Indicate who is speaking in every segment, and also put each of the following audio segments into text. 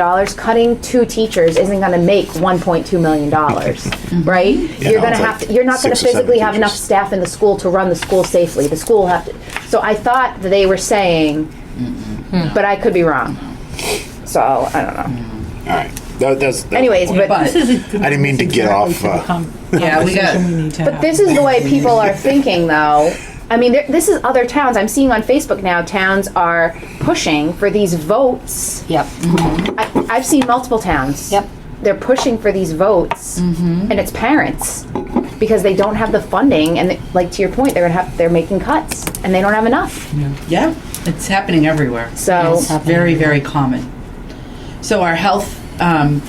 Speaker 1: dollars, cutting two teachers isn't gonna make one point two million dollars, right? You're gonna
Speaker 2: it's
Speaker 1: have,
Speaker 2: like
Speaker 1: to. you're not gonna
Speaker 2: six or seven
Speaker 1: physically have enough
Speaker 2: teachers.
Speaker 1: staff in the school to run the school safely. The school will have to, so I thought that they were saying, but I could be wrong. So, I don't know.
Speaker 2: All right. That, that's, that-
Speaker 1: Anyways, but,
Speaker 3: But,
Speaker 2: I didn't mean to get off. Uh,
Speaker 3: yeah, we got,
Speaker 1: but this is the way people are thinking though. I mean, there- this is other towns, I'm seeing on Facebook now, towns are pushing for these votes.
Speaker 4: Yep.
Speaker 1: I, I've seen multiple towns.
Speaker 4: Yep. Mm-hmm.
Speaker 1: They're pushing for these votes, and it's parents because they don't have the funding, and they- like to your point, they're gonna have they're making cuts, and they don't have enough.
Speaker 3: yeah, it's happening everywhere.
Speaker 1: So
Speaker 3: It's very, very common. So our health um,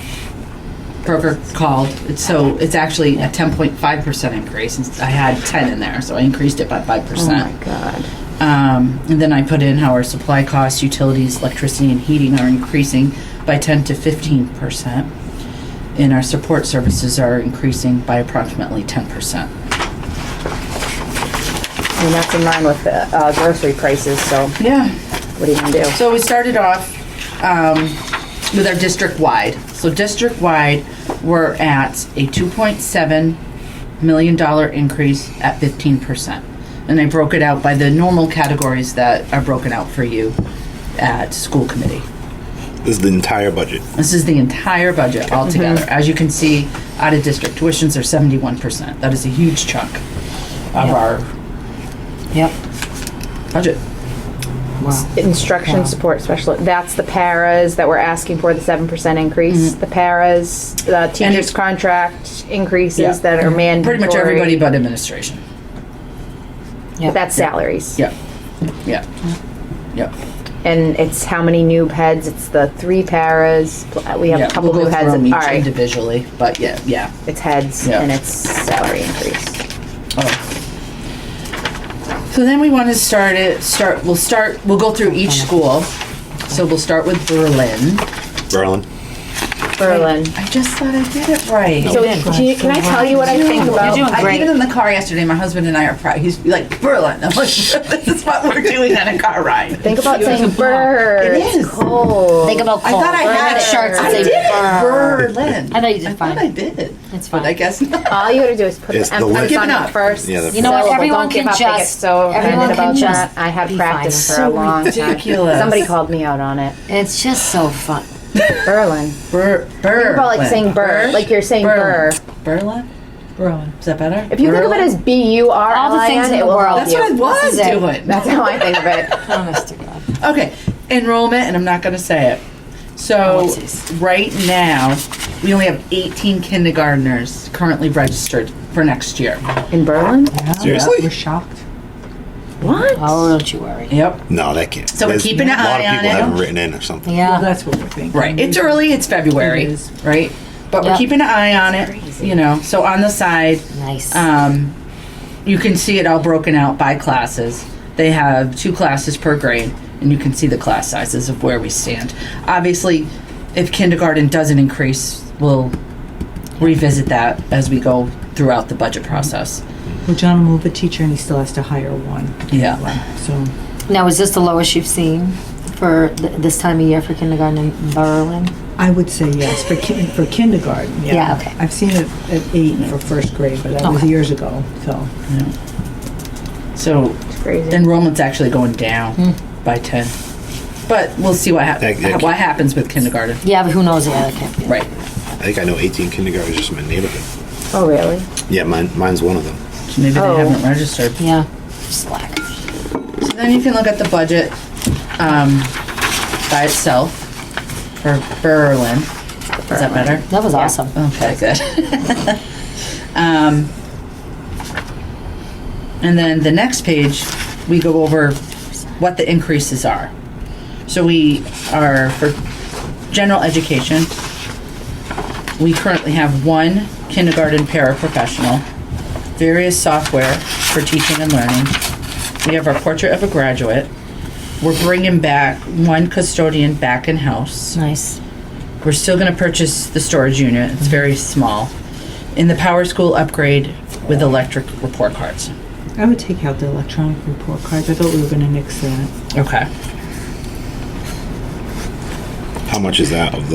Speaker 3: broker called, It's so it's actually a 10.5% increase. and I had 10 in there, so I increased it by 5%.
Speaker 1: Oh God,
Speaker 3: Um, and then I put in how our supply costs, utilities, electricity, and heating are increasing by 10 to 15 percent, and our support services are increasing by approximately 10 percent.
Speaker 1: I mean that's in line with the uh, grocery prices. So
Speaker 3: Yeah.
Speaker 1: what are you gonna do?
Speaker 3: So we started off um, with our district wide. So district wide, we're at a 2.7 million dollar increase at 15 percent, and I broke it out by the normal categories that are broken out for you at school committee.
Speaker 2: this is the entire budget.
Speaker 3: This is the entire budget altogether. As you can see, out of district tuitions are seventy-one percent. That is a huge chunk of our
Speaker 4: Yep.
Speaker 3: budget.
Speaker 1: Instruction support specialist. That's the paras that we're asking for the seven percent increase.
Speaker 3: Mm-hmm.
Speaker 1: The paras, the teachers'
Speaker 3: it-
Speaker 1: contract increases
Speaker 3: Yeah. Mm-hmm.
Speaker 1: that are mandatory.
Speaker 3: Pretty much everybody but administration.
Speaker 1: But that's salaries.
Speaker 3: Yep. Yep. Yep.
Speaker 1: And it's how many new heads? It's the three paras. pl- uh, We have
Speaker 3: Yeah,
Speaker 1: a couple
Speaker 3: we'll
Speaker 1: new
Speaker 3: go
Speaker 1: heads.
Speaker 3: through them
Speaker 1: All
Speaker 3: each
Speaker 1: right,
Speaker 3: individually, but yeah, yeah.
Speaker 1: it's heads
Speaker 3: Yeah.
Speaker 1: and it's salary increase.
Speaker 3: Oh. So then we want to start it, start, we'll start, we'll go through each school. So we'll start with Berlin.
Speaker 2: Berlin.
Speaker 1: Berlin.
Speaker 3: I just thought I did it right.
Speaker 1: So do you- can I tell you what I think about?
Speaker 4: doing
Speaker 3: I
Speaker 4: great.
Speaker 3: did it in the car yesterday. My husband and I are proud. He's like Berlin. I'm like, this is what we're doing on a car ride.
Speaker 1: Think about saying bird.
Speaker 3: It is.
Speaker 1: It's cold.
Speaker 4: Think about
Speaker 3: I
Speaker 4: cold.
Speaker 3: thought I
Speaker 4: Wear
Speaker 3: had
Speaker 4: the
Speaker 3: it.
Speaker 4: shirts and
Speaker 3: I
Speaker 4: say
Speaker 3: did it.
Speaker 4: burn.
Speaker 3: Berlin.
Speaker 4: I thought you did
Speaker 3: I thought
Speaker 4: fine.
Speaker 3: I did.
Speaker 4: It's
Speaker 3: But I
Speaker 4: fine.
Speaker 3: guess not.
Speaker 1: All you gotta do is put
Speaker 2: It's
Speaker 1: the
Speaker 2: the
Speaker 1: emphasis
Speaker 2: link.
Speaker 1: on
Speaker 3: Giving
Speaker 1: it
Speaker 3: up.
Speaker 1: first.
Speaker 2: Yeah, the
Speaker 4: You know what?
Speaker 1: Syllable.
Speaker 4: Everyone
Speaker 1: Don't give
Speaker 4: can
Speaker 1: up. They get
Speaker 4: just-
Speaker 1: So
Speaker 4: everyone
Speaker 1: offended
Speaker 4: can
Speaker 1: about
Speaker 4: just
Speaker 1: that. I have
Speaker 4: be
Speaker 1: practiced
Speaker 4: fine.
Speaker 1: for a
Speaker 3: So
Speaker 1: long
Speaker 3: ridiculous.
Speaker 1: time. Somebody called me out on it.
Speaker 4: It's just so fun.
Speaker 1: Berlin.
Speaker 3: Ber-
Speaker 1: Think about like saying bird, like you're saying burr.
Speaker 3: Berlin. Berlin. Is that better?
Speaker 1: If you think of it as B U R
Speaker 4: All
Speaker 1: L
Speaker 4: the
Speaker 1: I
Speaker 4: things
Speaker 1: N, it
Speaker 4: in the
Speaker 1: will
Speaker 4: world.
Speaker 1: help
Speaker 3: That's
Speaker 1: you.
Speaker 3: what I was
Speaker 4: This is it.
Speaker 3: doing.
Speaker 1: That's how I think of it.
Speaker 4: Promise to God.
Speaker 3: Okay, enrollment, and I'm not going to say it. So,
Speaker 4: Ellipses.
Speaker 3: right now, we only have 18 kindergartners currently registered for next year.
Speaker 1: In Berlin?
Speaker 2: Seriously?
Speaker 5: shocked.
Speaker 1: What?
Speaker 4: Oh, don't you worry.
Speaker 3: Yep.
Speaker 2: No, that can't.
Speaker 3: So we're
Speaker 2: There's
Speaker 3: keeping an
Speaker 2: A lot
Speaker 3: eye
Speaker 2: of
Speaker 3: on
Speaker 2: people
Speaker 3: it.
Speaker 2: haven't written in or something.
Speaker 4: Yeah.
Speaker 5: That's what we're thinking.
Speaker 3: Right. It's early, it's February,
Speaker 5: It is.
Speaker 3: right? But we're
Speaker 4: Yep.
Speaker 3: keeping an eye on it, you know. So, on the side,
Speaker 4: Nice.
Speaker 3: Um, you can see it all broken out by classes. They have two classes per grade, and you can see the class sizes of where we stand. Obviously, if kindergarten doesn't increase, we'll revisit that as we go throughout the budget process.
Speaker 5: Well, John will move a teacher and he still has to hire one.
Speaker 3: Yeah.
Speaker 5: So
Speaker 4: Now, is this the lowest you've seen for th- this time of year for kindergarten in Berlin?
Speaker 5: I would say yes for kin- for kindergarten. Yeah.
Speaker 4: Yeah, okay.
Speaker 5: I've seen it at eight for first grade, but that was
Speaker 4: Okay.
Speaker 5: years ago. So
Speaker 3: So
Speaker 1: Crazy.
Speaker 3: enrollment's actually going down by 10. But we'll see what, hap-
Speaker 2: That- that-
Speaker 3: what happens with kindergarten.
Speaker 4: Yeah, but who knows the other kid?
Speaker 3: Right.
Speaker 2: I think I know 18 kindergartners just in my neighborhood.
Speaker 1: Oh, really?
Speaker 2: Yeah, mine, mine's one of them.
Speaker 3: So maybe
Speaker 1: Oh.
Speaker 3: they haven't registered.
Speaker 4: Yeah. Slack.
Speaker 3: So then you can look at the budget um, by itself for Berlin. Is that better?
Speaker 4: That was awesome.
Speaker 3: Okay, good. um, and then the next page, we go over what the increases are. So we are for general education. We currently have one kindergarten paraprofessional, various software for teaching and learning. We have our portrait of a graduate. We're bringing back one custodian back in house.
Speaker 4: Nice.
Speaker 3: We're still going to purchase the storage unit. It's very small. In the power school upgrade with electric report cards.
Speaker 5: I would take out the electronic report cards. I thought we were going to nix that.
Speaker 3: Okay.
Speaker 2: How much is that of the